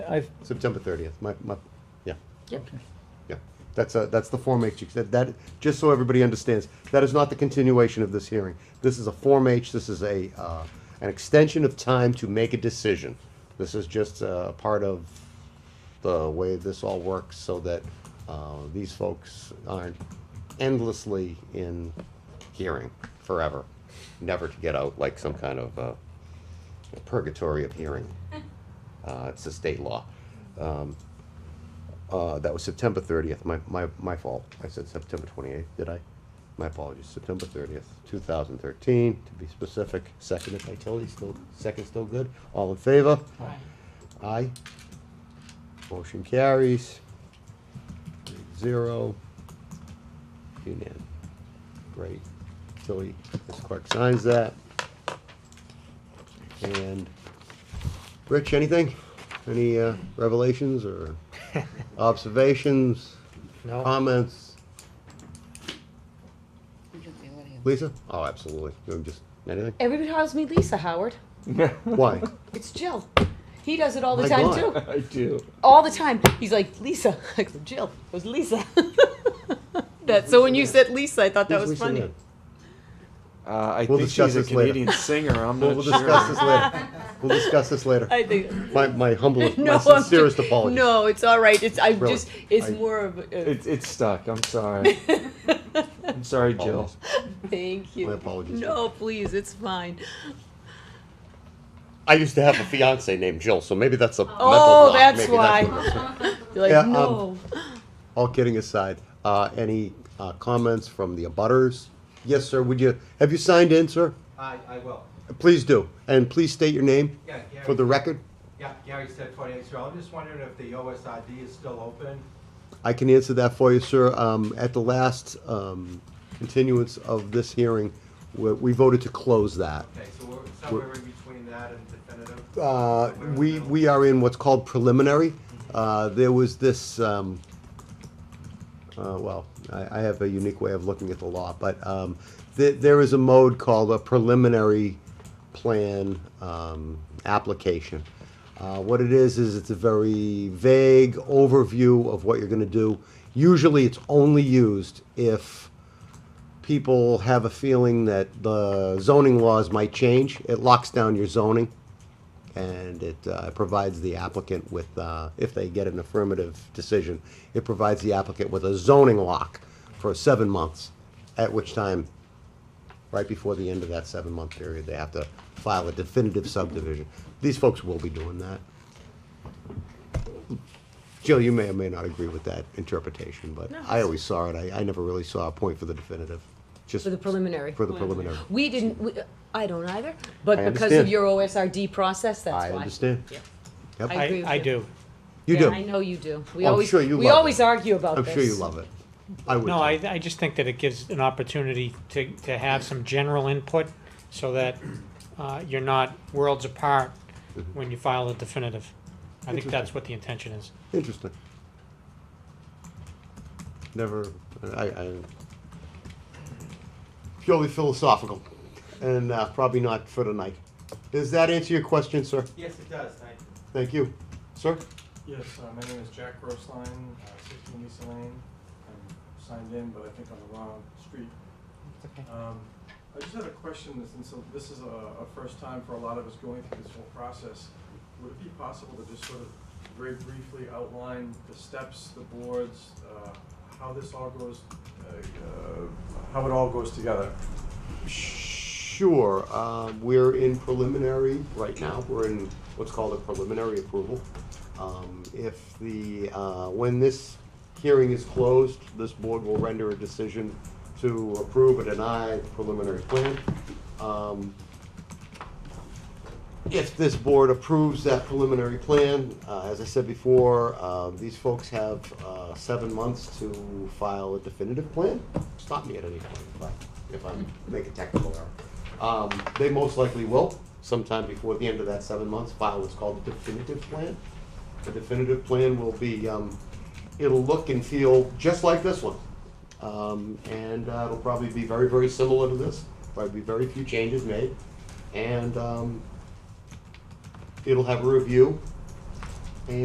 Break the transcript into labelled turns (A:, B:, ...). A: I've,
B: September thirtieth, my, my, yeah,
C: Yep.
B: yeah. That's, uh, that's the Form H, that, that, just so everybody understands, that is not the continuation of this hearing. This is a Form H, this is a, uh, an extension of time to make a decision. This is just, uh, part of the way this all works, so that, uh, these folks aren't endlessly in hearing forever, never to get out like some kind of, uh, purgatory of hearing. Uh, it's a state law. Um, uh, that was September thirtieth, my, my, my fault. I said September twenty-eighth, did I? My apologies, September thirtieth, two thousand thirteen, to be specific. Second if I tell you, still, second still good. All in favor? Aye. Motion carries. Eight Zero. Unan. Great. Tilly, Ms. Clark signs that. And, Rich, anything? Any uh, revelations or observations,
C: No,
B: comments?
C: everybody
B: Lisa? Oh, absolutely. You know, Just anything?
C: calls me Lisa Howard.
B: Why?
C: It's Jill. He does it all the
B: My
C: time
B: God.
C: too.
A: I do.
C: All the time. He's like Lisa. I go, Jill. It was Lisa. that. So when you said Lisa, I thought that
B: Who's
C: was
B: Lisa
C: funny.
B: Mann?
D: Uh, I
B: We'll
D: think
B: discuss
D: she's a
B: this later.
D: Canadian singer. I'm not
B: We'll we'll
D: sure.
B: discuss this later. We'll discuss this later.
C: I think.
B: My, my humblest,
C: No,
B: my
C: I'm
B: sincerest
C: just-
B: apologies.
C: No, it's all right. It's I'm
B: Really,
C: just. It's
B: I-
C: more of. A,
D: It, it's stuck. I'm sorry. I'm sorry, Jill.
B: Apologies.
C: thank you.
B: My apologies.
C: No, please. It's fine.
B: I used to have a fiance named Jill, so maybe that's a mental
C: Oh,
B: block.
C: that's
B: Maybe
C: why.
B: what it is.
C: You're like
B: Yeah, um,
C: no.
B: All kidding aside, uh, any uh, comments from the abutters? Yes, sir. Would you have you signed in, sir?
E: I, I will.
B: Please do, and please state your name
E: Yeah, Gary.
B: for the record.
E: Yeah, Gary said forty-eight, so I'm just wondering if the OSRD is still open?
B: I can answer that for you, sir. Um, at the last um, continuance of this hearing, we, we voted to close that.
E: Okay, so we're somewhere in between that and definitive?
B: Uh,
E: Somewhere in the
B: we,
E: middle?
B: we are in what's called preliminary. Uh, there was this, um, uh, well, I, I have a unique way of looking at the law, but, um, there, there is a mode called a preliminary plan, um, application. Uh, what it is, is it's a very vague overview of what you're gonna do. Usually, it's only used if, people have a feeling that the zoning laws might change. It locks down your zoning, and it uh, provides the applicant with, uh, if they get an affirmative decision, it provides the applicant with a zoning lock for seven months, at which time, right before the end of that seven-month period, they have to file a definitive subdivision. These folks will be doing that. Jill, you may or may not agree with that interpretation, but I always saw it. I, I never really saw a point for the definitive, just
C: For the preliminary.
B: for the preliminary.
C: We didn't, we, I don't either, but
B: I
C: because of
B: understand.
C: your OSRD process, that's why.
B: I understand.
C: Yep.
B: Yep.
C: I agree
A: I,
C: with
A: I
C: you.
A: do.
B: You
C: Yeah, I
B: do.
C: know you do. We
B: I'm
C: always,
B: sure you
C: we
B: love
C: always
B: it.
C: argue about
B: I'm
C: this.
B: sure you love it. I would.
A: No,
B: too.
A: I, I just think that it gives an opportunity to, to have some general input so that uh, you're not worlds apart when you file a definitive. I think that's what the intention is.
B: Interesting. Never, I, I, purely philosophical, and uh, probably not for tonight. Does that answer your question, sir?
E: Yes, it does, thank you.
B: Thank you. Sir?
F: Yes, uh, my name is Jack Grossline, uh, sixteen East Lane. I'm signed in, but I think on the wrong street.
C: okay.
F: Um, I just had a question, this- and so this is a, a first time for a lot of us going through this whole process. Would it be possible to just sort of very briefly outline the steps, the boards, uh, how this all goes, uh, uh, how it all goes together?
B: Sure, um, we're in preliminary right now, we're in what's called a preliminary approval. Um, if the, uh, when this hearing is closed, this board will render a decision to approve or deny the preliminary plan. Um, if this board approves that preliminary plan, uh, as I said before, uh, these folks have, uh, seven months to file a definitive plan. Stop me at any point if I, if I make a technical error. Um, they most likely will, sometime before the end of that seven months, file what's called a definitive plan. The definitive plan will be, um, it'll look and feel just like this one. Um, and, uh, it'll probably be very, very similar to this, probably be very few changes made. And, um, it'll have a review